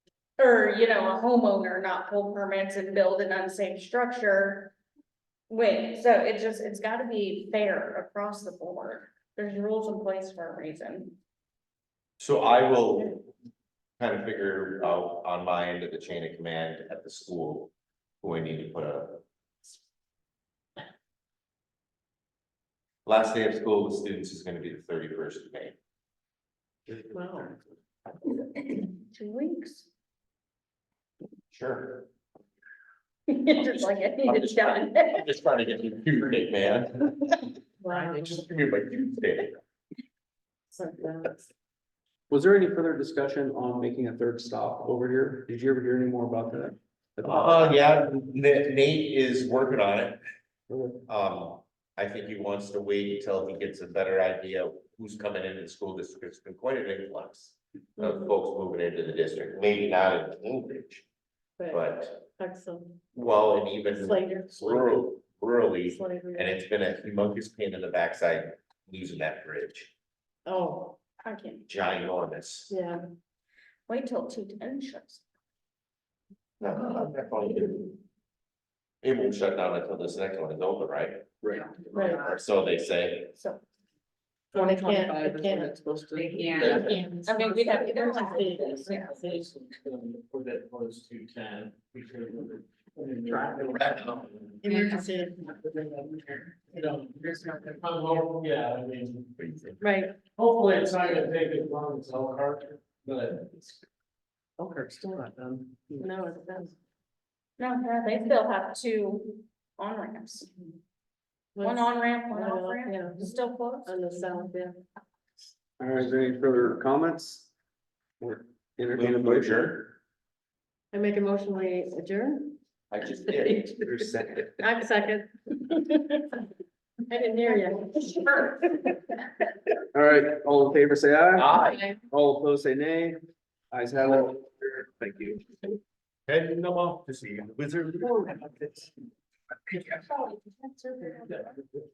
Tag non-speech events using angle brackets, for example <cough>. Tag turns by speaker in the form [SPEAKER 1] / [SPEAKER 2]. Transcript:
[SPEAKER 1] or, you know, a homeowner not pull permits and build an unsafe structure. Wait, so it just, it's gotta be fair across the board. There's rules in place for a reason. <clears throat>
[SPEAKER 2] So I will kind of figure out on my end of the chain of command at the school, who I need to put a. Last day of school with students is gonna be the thirty first of May.
[SPEAKER 1] Two weeks. <laughs>
[SPEAKER 2] Sure.
[SPEAKER 1] Just like, I
[SPEAKER 2] I'm
[SPEAKER 1] think it's
[SPEAKER 2] just
[SPEAKER 1] done.
[SPEAKER 2] trying- I'm just trying to get you to date, man. Just give me my due date.
[SPEAKER 3] Was there any further discussion on making a third stop over here? Did you ever hear any more about that?
[SPEAKER 2] Uh, yeah, Nate, Nate is working on it. Um, I think he wants to wait until he gets a better idea of who's coming into the school district. It's been quite an influx
[SPEAKER 4] Mm-hmm.
[SPEAKER 2] of folks moving into the district, maybe not in Cambridge, but,
[SPEAKER 4] Excellent.
[SPEAKER 2] well, and even
[SPEAKER 4] Slater.
[SPEAKER 2] rural, rurally,
[SPEAKER 4] Slater.
[SPEAKER 2] and it's been a humongous pain in the backside losing that bridge,
[SPEAKER 4] Oh,
[SPEAKER 1] I can
[SPEAKER 2] ginormous.
[SPEAKER 4] yeah.
[SPEAKER 1] wait till two ten shows.
[SPEAKER 2] No, I'm not going to. It won't shut down until this next one is over, right?
[SPEAKER 3] Right.
[SPEAKER 4] Right.
[SPEAKER 2] Or so they
[SPEAKER 4] <laughs>
[SPEAKER 2] say.
[SPEAKER 1] So,
[SPEAKER 4] Well, it can't, it can't.
[SPEAKER 3] supposed to.
[SPEAKER 5] Yeah.
[SPEAKER 1] I mean, we'd have to go back.
[SPEAKER 6] Or that was two ten.
[SPEAKER 4] Emergency.
[SPEAKER 6] You know, it's not- I'm hoping- yeah, I mean,
[SPEAKER 4] Right.
[SPEAKER 6] hopefully it's not gonna take as long as Elkhart, but.
[SPEAKER 5] Elkhart still not done.
[SPEAKER 4] No, it doesn't.
[SPEAKER 1] no, no, they still have two on ramps, one on ramp, one off ramp,
[SPEAKER 4] Yeah,
[SPEAKER 1] It's still closed.
[SPEAKER 4] on the south, yeah.
[SPEAKER 3] All right, is there any further comments? Or entertain a motion?
[SPEAKER 4] I make a motion, we adjourn.
[SPEAKER 2] I just did.
[SPEAKER 4] I'm second. <laughs> I didn't hear you. <laughs> Sure.
[SPEAKER 3] All right, all in favor, say aye.
[SPEAKER 2] Aye.
[SPEAKER 3] All opposed, say nay. Ayes have it. Thank you.
[SPEAKER 2] Heading them off to see the wizard.